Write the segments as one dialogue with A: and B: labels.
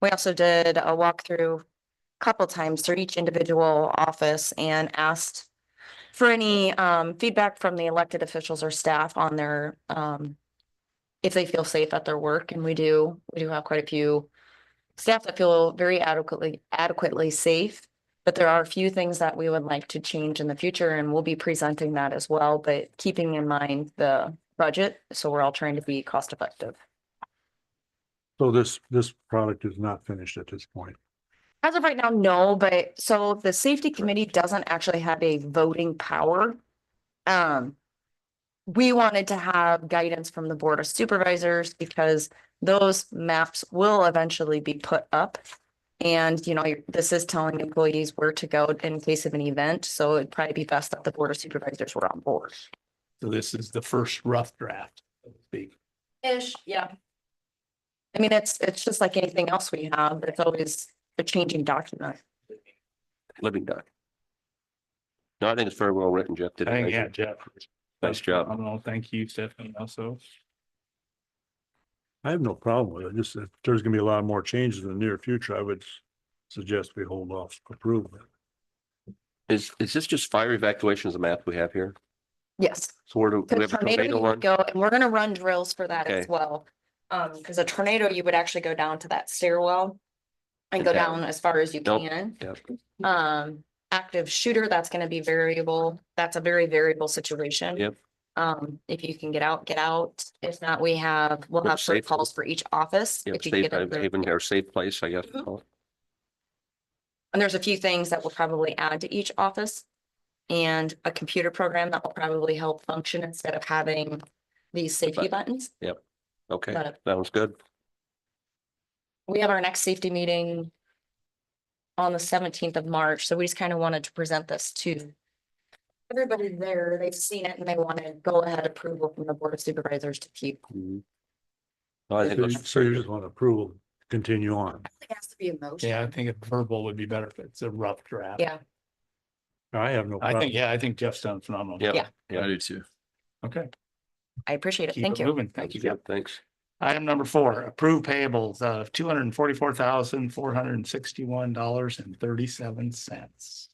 A: We also did a walkthrough a couple times through each individual office and asked for any um feedback from the elected officials or staff on their um if they feel safe at their work, and we do, we do have quite a few staff that feel very adequately adequately safe. But there are a few things that we would like to change in the future, and we'll be presenting that as well, but keeping in mind the budget, so we're all trying to be cost effective.
B: So this, this product is not finished at this point.
A: As of right now, no, but so the safety committee doesn't actually have a voting power. Um. We wanted to have guidance from the board of supervisors because those maps will eventually be put up. And you know, you're- this is telling employees where to go in case of an event, so it'd probably be best that the board of supervisors were on board.
C: So this is the first rough draft, so to speak.
A: Ish, yeah. I mean, it's, it's just like anything else we have, it's always a changing document.
D: living duck. No, I think it's very well written, Jeff. Did a
C: Thank
D: nice-
C: yeah, Jeff.
D: Nice job.
C: I don't know, thank you, Stephanie, also.
B: I have no problem with it. Just if there's gonna be a lot more changes in the near future, I would s- suggest we hold off approval.
D: Is, is this just fire evacuation is the map we have here?
A: Yes.
D: So where do do we
A: Because
D: have a
A: tornado,
D: tornado
A: you would
D: one?
A: go, and we're gonna run drills for that as
D: Okay.
A: well. Um, because a tornado, you would actually go down to that stairwell. And go
D: Okay.
A: down as far as you
D: Nope.
A: can.
D: Yep.
A: Um, active shooter, that's gonna be variable. That's a very variable situation.
D: Yep.
A: Um, if you can get out, get out. If not, we have, we'll
D: Yep,
A: have short
D: safe.
A: calls for each office.
D: Yeah,
A: if you
D: safe uh,
A: get in there.
D: haven or safe place, I guess.
A: Mhm.
D: Oh,
A: And there's a few things that we'll probably add to each office. And a computer program that will probably help function instead of having these safety
D: But-
A: buttons.
D: Okay,
A: Got it.
D: sounds good.
A: we have our next safety meeting on the seventeenth of March, so we just kind of wanted to present this to everybody there. They've seen it and they want to go ahead approval from the Board of Supervisors to keep.
D: Mhm. No, I think
B: Mm-hmm. So you
D: it looks
B: so you
D: very
B: just
D: good.
B: want approval, to continue on.
A: It has to be a motion.
C: Yeah, I think a verbal would be better if it's a rough draft.
A: Yeah,
B: I have no
C: I think,
B: problem.
C: yeah, I think Jeff's done phenomenal.
D: Yeah.
A: Yeah.
D: Yeah.
C: do too. Okay.
A: I appreciate it.
C: keep
A: Thank
C: it
A: you.
C: Moving, thank you,
D: Yeah,
C: Jeff.
D: Thanks.
C: Item number four, approved payables of two hundred and forty-four thousand, four hundred and sixty-one dollars and thirty-seven cents.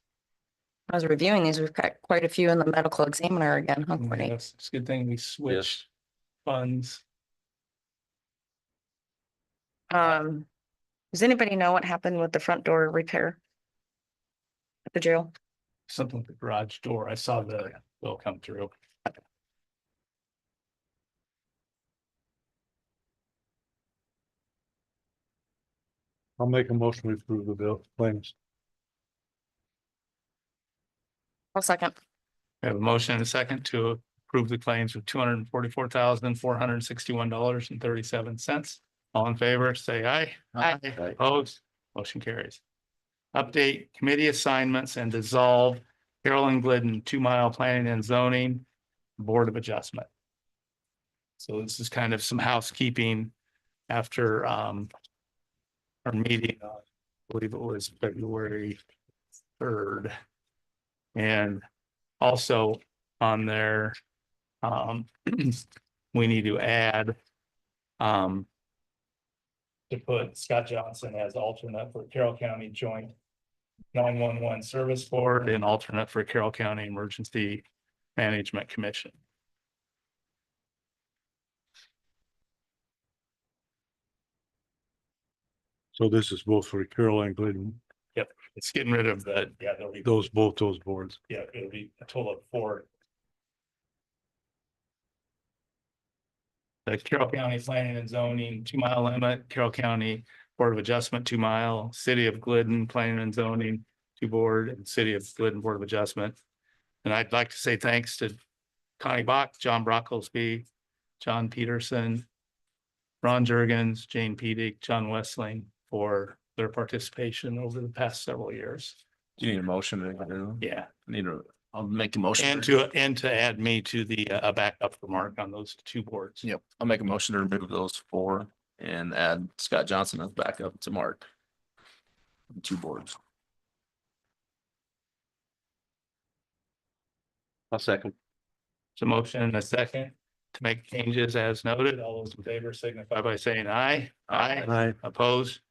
A: I was reviewing these. We've got quite a few in the medical examiner again, huh, Courtney?
C: It's a good thing we switched
D: Yes.
C: funds.
A: Um, does anybody know what happened with the front door repair? At the jail?
C: something with the garage door. I saw the bill come through.
B: I'll make a motion to approve the bill claims.
A: I'll second.
C: We have a motion and a second to approve the claims of two hundred and forty-four thousand, four hundred and sixty-one dollars and thirty-seven cents. All in favor, say aye.
A: Aye.
C: Opposed, motion carries. Update committee assignments and dissolve Carolyn Glidden, two mile planning and zoning, Board of Adjustment. So this is kind of some housekeeping after um. Our meeting, uh, I believe it was February third. And also on there, um, we need to add. Um. To put Scott Johnson as alternate for Carroll County Joint nine one one Service Board and alternate for Carroll County Emergency Management Commission.
B: So this is both for Carol and Glidden,
C: It's getting rid of the, yeah, there'll be,
B: those, both those boards.
C: yeah, it'll be a total of four. The Carroll County Planning and Zoning, two mile limit, Carroll County Board of Adjustment, two mile, City of Glidden Planning and Zoning, two board, and City of Glidden Board of Adjustment. And I'd like to say thanks to Connie Bach, John Brocklesby, John Peterson, Ron Jurgens, Jane Pedig, John Westling for their participation over the past several years.
E: Do you need a motion? to get rid of them?
C: Yeah,
E: Need a, I'll make a motion.
C: and to, and to add me to the, uh, a backup remark on those two boards.
E: Yep, I'll make a motion to remove those four and add Scott Johnson as backup to Mark. Two boards.
D: I'll second.
C: So motion and a second to make changes as noted. All those in favor signify by saying aye. Aye.
B: I,
C: Opposed?